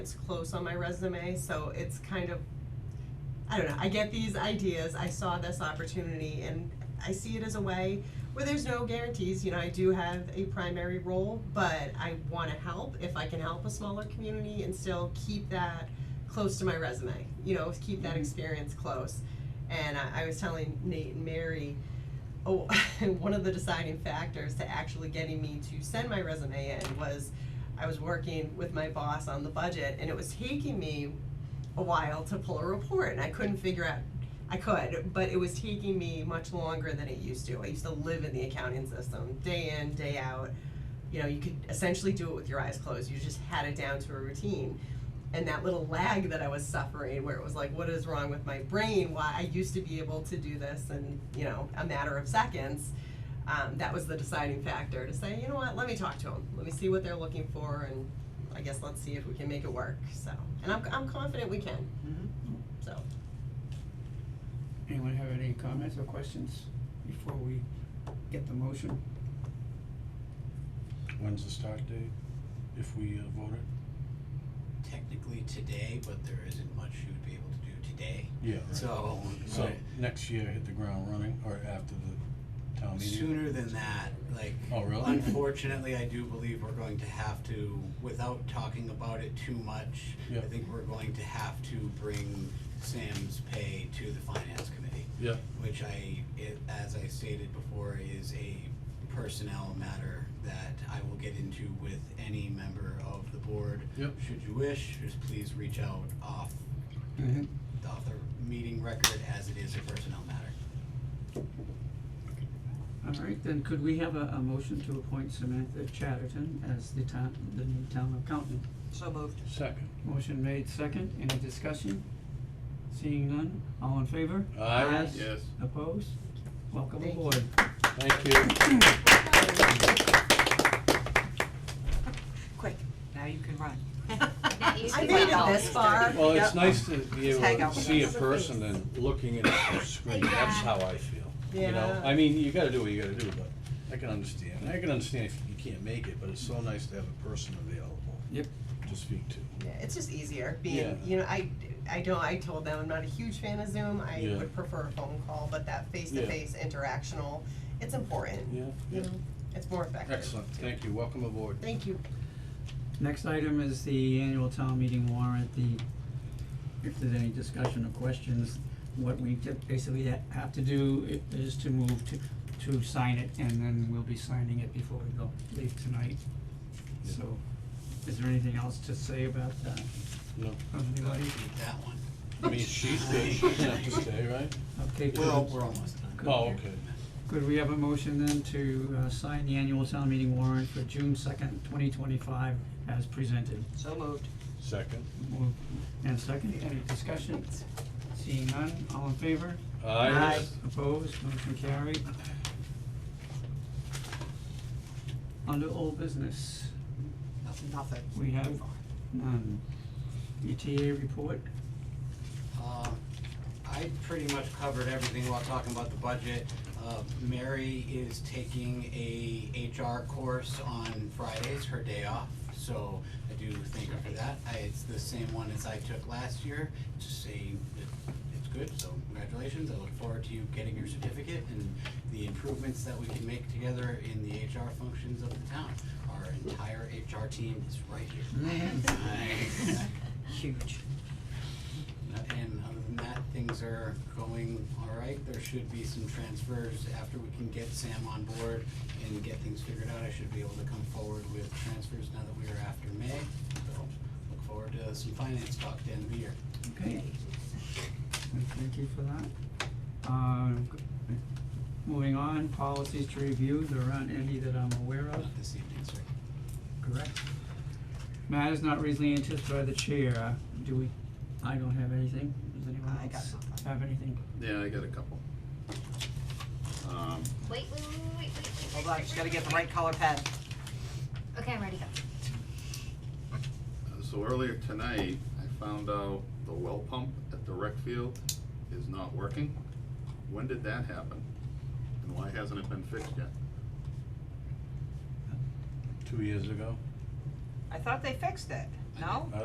It's close on my resume, so it's kind of, I don't know, I get these ideas, I saw this opportunity and I see it as a way where there's no guarantees, you know, I do have a primary role, but I wanna help if I can help a smaller community and still keep that close to my resume, you know, keep that experience close. And I, I was telling Nate and Mary, oh, one of the deciding factors to actually getting me to send my resume in was I was working with my boss on the budget and it was taking me a while to pull a report and I couldn't figure out I could, but it was taking me much longer than it used to. I used to live in the accounting system day in, day out. You know, you could essentially do it with your eyes closed. You just had it down to a routine. And that little lag that I was suffering where it was like, what is wrong with my brain? Why I used to be able to do this in, you know, a matter of seconds. Um, that was the deciding factor to say, you know what, let me talk to them. Let me see what they're looking for and I guess let's see if we can make it work. So, and I'm, I'm confident we can. So. Anyone have any comments or questions before we get the motion? When's the start date, if we uh, vote it? technically today, but there isn't much you would be able to do today. Yeah, right. So, So, right. next year, hit the ground running, or after the town meeting? sooner than that, like. Oh, really? Unfortunately, I do believe we're going to have to, without talking about it too much, I Yeah. think we're going to have to bring Sam's pay to the finance committee. Yeah, which I, it, as I stated before, is a personnel matter that I will get into with any member of the board. Yep. Should you wish, just please reach out off, Mm-hmm. Mhm. off the meeting record as it is a personnel matter. All right, then could we have a, a motion to appoint Samantha Chatterton as the town, the new town accountant? So moved. second. Motion made second, any discussion? Seeing none, all in favor? Aye. Ayes. Yes. Opposed? Welcome Thank you. aboard. Thank you. Quick, now you can run. Now you I can made run. it this far. Well, it's Yep. nice to be Just hang able out to with see a us. person than looking at a screen, that's Yeah. how I feel, you know? Yeah. I mean, you gotta do what you gotta do, but I can understand, I can understand if you can't make it, but it's so nice to have a person available Yep. to speak to. Yeah, it's just easier being, Yeah. you know, I, I know I told them I'm not a huge fan of Zoom. I Yeah. would prefer a phone call, but that face to face interactional, it's important. Yeah, You yeah, know, it's more effective. excellent, thank you, welcome aboard. Thank you. Next item is the annual town meeting warrant, the, if there's any discussion or questions, what we typ- basically ha- have to do i- is to move to, to sign it, and then we'll be signing it before we go, leave tonight. Yeah. So, is there anything else to say about that, No, from anybody? Eat that one. I mean, she's good, she doesn't have to stay, right? Okay, Well, could, we're almost done. Oh, okay. could we have a motion then to, uh, sign the annual town meeting warrant for June second, twenty twenty-five, as presented? So moved. Second. Moved and second, any discussion? Seeing none, all in favor? Aye. Opposed, motion carried. Under old business, Nothing. Nothing. we have none. ETA report, Uh, I pretty much covered everything while talking about the budget. Uh, Mary is taking a HR course on Fridays, her day off, so I do thank her for that. I, it's the same one as I took last year, just saying that it's good, so congratulations. I look forward to you getting your certificate and the improvements that we can make together in the HR functions of the town. Our entire HR team is right here. Nice. Huge. And other than that, things are going all right. There should be some transfers after we can get Sam on board and get things figured out. I should be able to come forward with transfers now that we are after May. So look forward to some finance talk at the end of the year. okay. And Thank you for that. Um, moving on, policies to review, there aren't any that I'm aware of, Not this evening, sir. correct? Matters not reasonably anticipated by the chair, Uh, do we, I don't have anything, does anyone I got else nothing. have anything? Yeah, I got a couple. Um, Wait, wait, wait, wait, wait, wait. Hold on, just gotta get the right color pen. Okay, I'm ready to go. so earlier tonight, I found out the well pump at the rec field is not working. When did that happen? And why hasn't it been fixed yet? Two years ago. I thought they fixed it, no?